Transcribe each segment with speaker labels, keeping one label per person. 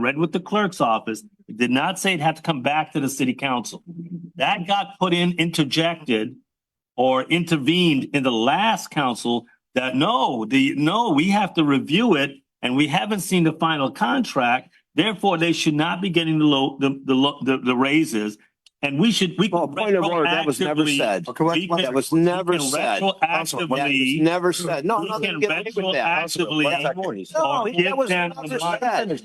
Speaker 1: read with the clerk's office, it did not say it had to come back to the city council. That got put in, interjected or intervened in the last council that no, the, no, we have to review it and we haven't seen the final contract. Therefore, they should not be getting the low, the, the, lo- the, the raises. And we should, we.
Speaker 2: Well, point of order, that was never
Speaker 1: retroactively-
Speaker 2: said.
Speaker 3: Okay, what,
Speaker 1: we
Speaker 3: what-
Speaker 1: can-
Speaker 2: That was
Speaker 1: we
Speaker 2: never
Speaker 1: can
Speaker 2: said.
Speaker 3: Councilman,
Speaker 2: That was
Speaker 1: Retroactively.
Speaker 2: never said. No,
Speaker 1: We
Speaker 2: no,
Speaker 1: can
Speaker 2: get away with that.
Speaker 1: retroactively-
Speaker 2: One second. No,
Speaker 1: Or
Speaker 2: that
Speaker 1: give
Speaker 2: was
Speaker 1: them
Speaker 2: never
Speaker 1: a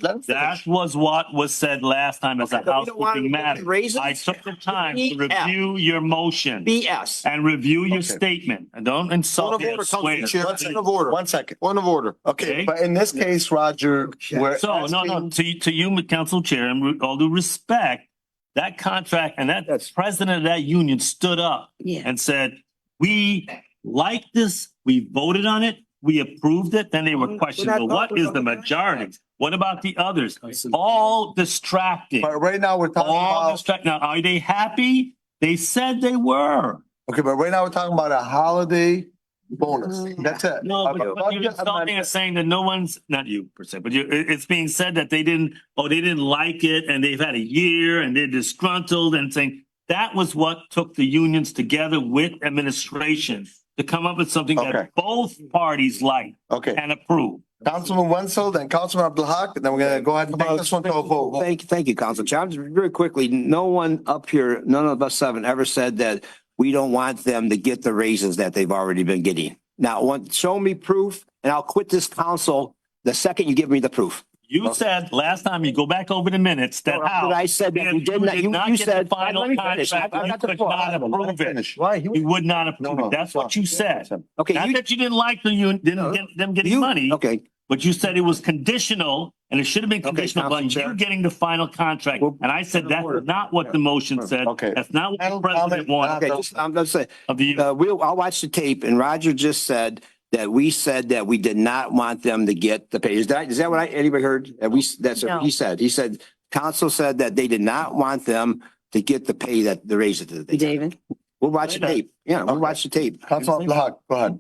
Speaker 1: month.
Speaker 2: said.
Speaker 1: That was what was said last time as a
Speaker 2: Okay, but we don't want
Speaker 1: housekeeping
Speaker 2: to
Speaker 1: matter.
Speaker 2: raise it. E
Speaker 1: I took the time to
Speaker 2: BS.
Speaker 1: review your motion
Speaker 2: BS.
Speaker 1: and review your
Speaker 4: Okay.
Speaker 1: statement. And don't insult me. I swear.
Speaker 4: One
Speaker 3: Point
Speaker 4: second,
Speaker 3: of order.
Speaker 4: one second.
Speaker 3: Point of order.
Speaker 1: Okay.
Speaker 4: Okay, but in this case, Roger, we're
Speaker 1: So, no, no,
Speaker 4: asking,
Speaker 1: to, to you, Council Chair, and with all due respect, that contract and that
Speaker 2: Yes.
Speaker 1: president of that union stood up
Speaker 5: Yeah.
Speaker 1: and said, we like this, we voted on it, we approved it, then they were
Speaker 2: We're
Speaker 1: questioned,
Speaker 2: not
Speaker 1: well, what
Speaker 2: voting
Speaker 1: is
Speaker 2: on
Speaker 1: the
Speaker 2: the
Speaker 1: majority?
Speaker 2: contract.
Speaker 1: What about the others? All distracting,
Speaker 4: but right now we're talking
Speaker 1: all
Speaker 4: about,
Speaker 1: distracting. Now, are they happy? They said they were.
Speaker 4: okay, but right now we're talking about a holiday bonus. That's it.
Speaker 1: Mm. No,
Speaker 4: A
Speaker 1: but- but you're
Speaker 4: budget
Speaker 1: insulting
Speaker 4: amendment.
Speaker 1: and saying that no one's, not you per se, but you, it, it's being said that they didn't, oh, they didn't like it and they've had a year and they're disgruntled and saying that was what took the unions together with administration to come up with something
Speaker 4: Okay.
Speaker 1: that both parties like
Speaker 4: Okay,
Speaker 1: and approve.
Speaker 4: Councilman Wenzel, then Councilman Abdalhak, and then we're gonna go ahead and take this one to a vote.
Speaker 2: Thank, thank you, Council Chair. I'm just Very quickly, no one up here, none of us seven ever said that we don't want them to get the raises that they've already been getting. Now, one, show me proof and I'll quit this council the second you give me the proof.
Speaker 1: You said last time, you go back over the minutes that how.
Speaker 2: I said that
Speaker 1: if
Speaker 2: you did not, you, you
Speaker 1: get the
Speaker 2: said.
Speaker 1: Final
Speaker 2: Let me finish. I-
Speaker 1: contract,
Speaker 2: I
Speaker 1: you
Speaker 2: got the
Speaker 1: could
Speaker 2: floor.
Speaker 1: not approve it.
Speaker 4: Finish. Why? He was-
Speaker 1: You would not
Speaker 4: No,
Speaker 1: approve
Speaker 4: no.
Speaker 1: it. That's what you said.
Speaker 2: Okay,
Speaker 1: Not
Speaker 2: you,
Speaker 1: that you didn't like the union,
Speaker 2: No.
Speaker 1: didn't get them getting
Speaker 2: you-
Speaker 1: money.
Speaker 2: okay,
Speaker 1: But you said it was conditional and it should have been
Speaker 2: Okay,
Speaker 1: conditional
Speaker 2: Council
Speaker 1: upon
Speaker 2: Chair.
Speaker 1: you getting the final contract.
Speaker 2: Well,
Speaker 1: And I said that's
Speaker 2: order.
Speaker 1: not what the motion said.
Speaker 4: Okay.
Speaker 1: That's not what the
Speaker 4: Final
Speaker 1: president
Speaker 4: comment,
Speaker 1: wanted
Speaker 2: okay, just, I'm, I'm saying,
Speaker 1: of the,
Speaker 2: uh, we'll, I'll watch the tape and Roger just said that we said that we did not want them to get the pay. Is that, is that what I, anybody heard? That we, that's what he said. He said, council said that they did not want them to get the pay that the raises that they. got.
Speaker 5: David,
Speaker 2: We'll watch the tape. Yeah, we'll watch the tape.
Speaker 4: Councilman Abdalhak, go ahead.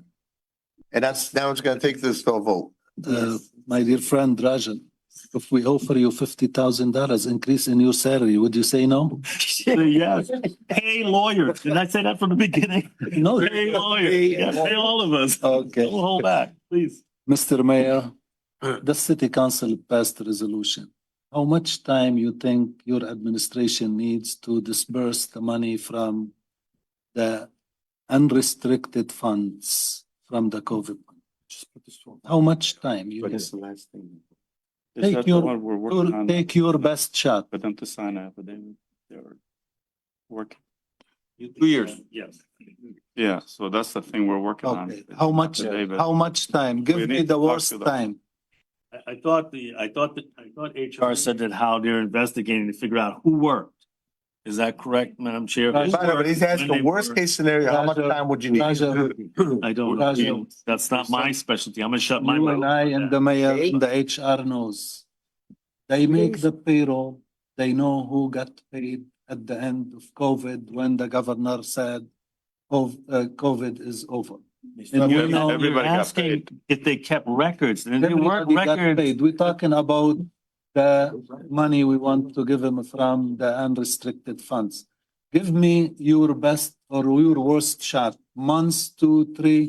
Speaker 4: And that's, now it's gonna take this to a vote.
Speaker 6: Uh, my dear friend Rajan, if we offer you fifty thousand dollars increase in your salary, would you say no?
Speaker 1: yes, pay lawyers. Did I say that from the beginning?
Speaker 6: No.
Speaker 1: Pay lawyers. Yes, pay all of us.
Speaker 6: Okay.
Speaker 1: Don't hold back, please.
Speaker 6: Mr. Mayor, the city council passed a resolution. How much time you think your administration needs to disperse the money from the unrestricted funds from the COVID? fund? How much time you need?
Speaker 7: the last thing.
Speaker 6: Take
Speaker 7: Is that the
Speaker 6: your-
Speaker 7: one we're working
Speaker 6: Your-
Speaker 7: on
Speaker 6: Take your best shot.
Speaker 7: for them to sign up, but then they're working.
Speaker 1: Two years. Yes.
Speaker 7: Yeah, so that's the thing we're working on.
Speaker 6: Okay, how much,
Speaker 7: David.
Speaker 6: how much time?
Speaker 7: We
Speaker 6: Give
Speaker 7: need
Speaker 6: me
Speaker 7: to
Speaker 6: the
Speaker 7: talk
Speaker 6: worst
Speaker 7: to them.
Speaker 6: time.
Speaker 1: I, I thought the, I thought that, I thought HR said that how they're investigating to figure out who worked. Is that correct, Madam Chair? Who
Speaker 6: Right,
Speaker 4: By the way,
Speaker 1: worked,
Speaker 4: But he's
Speaker 1: when they
Speaker 4: asking, worst
Speaker 1: were-
Speaker 4: case scenario, how much
Speaker 6: Roger,
Speaker 4: time would you need?
Speaker 6: Roger.
Speaker 1: I don't know.
Speaker 6: Roger.
Speaker 1: That's not my specialty. I'm gonna shut my
Speaker 6: You
Speaker 1: mouth.
Speaker 6: and I
Speaker 1: on
Speaker 6: and
Speaker 1: that.
Speaker 6: the mayor
Speaker 2: Okay.
Speaker 6: and the HR knows. They make the payroll, they know who got paid at the end of COVID when the governor said, "Cov- uh, COVID is over. And you
Speaker 1: You're
Speaker 6: know,
Speaker 1: you're
Speaker 7: everybody got
Speaker 1: asking if they kept records, and they weren't
Speaker 6: everybody got
Speaker 1: records.
Speaker 6: paid. We're talking about the money we want to give them from the unrestricted funds. Give me your best or your worst shot, months, two, three.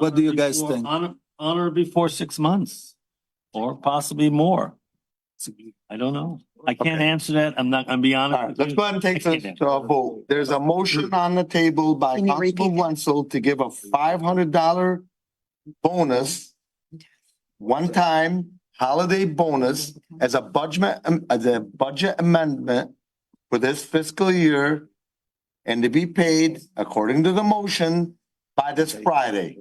Speaker 6: What do you guys
Speaker 1: Honor before-
Speaker 6: think?
Speaker 1: Honor, honor before six months, or possibly more. I don't know. I can't answer that. I'm not, I'm be
Speaker 4: All right,
Speaker 1: honest. with
Speaker 4: let's
Speaker 1: you.
Speaker 4: go ahead and take this to a vote. There's a motion on the table by
Speaker 5: Can you repeat
Speaker 4: Councilman
Speaker 5: that?
Speaker 4: Wenzel to give a five hundred dollar bonus, one-time holiday bonus as a budget, am- as a budget amendment for this fiscal year and to be paid according to the motion by this Friday,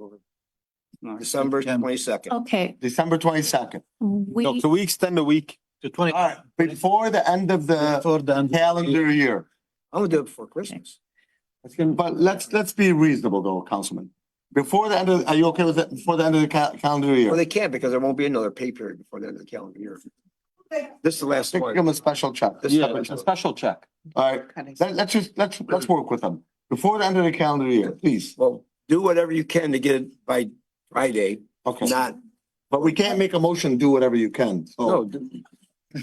Speaker 2: December twenty-second.
Speaker 5: okay,
Speaker 4: December twenty-second.
Speaker 5: we,
Speaker 3: we extend the week? To twenty.
Speaker 4: All right, before the end of the
Speaker 6: For Uh, the.
Speaker 4: calendar year.
Speaker 2: I'm gonna do it before Christmas.
Speaker 4: But let's, let's be reasonable though, Councilman. Before the end of, are you okay with that? Before the end of the ca- calendar year?
Speaker 2: Well, they can't because there won't be another pay period before the end of the calendar year. This is the last
Speaker 4: Give
Speaker 2: one.
Speaker 4: them a special check.
Speaker 2: This is
Speaker 6: Yeah,
Speaker 2: the-
Speaker 6: it's a
Speaker 4: special check. All right,
Speaker 5: cutting.
Speaker 4: let, let's just, let's, let's work with them. Before the end of the calendar year, please.
Speaker 2: Well, do whatever you can to get it by Friday,
Speaker 4: Okay.
Speaker 2: not,
Speaker 4: But we can't make a motion, do whatever you can.
Speaker 2: no,
Speaker 4: So
Speaker 2: do-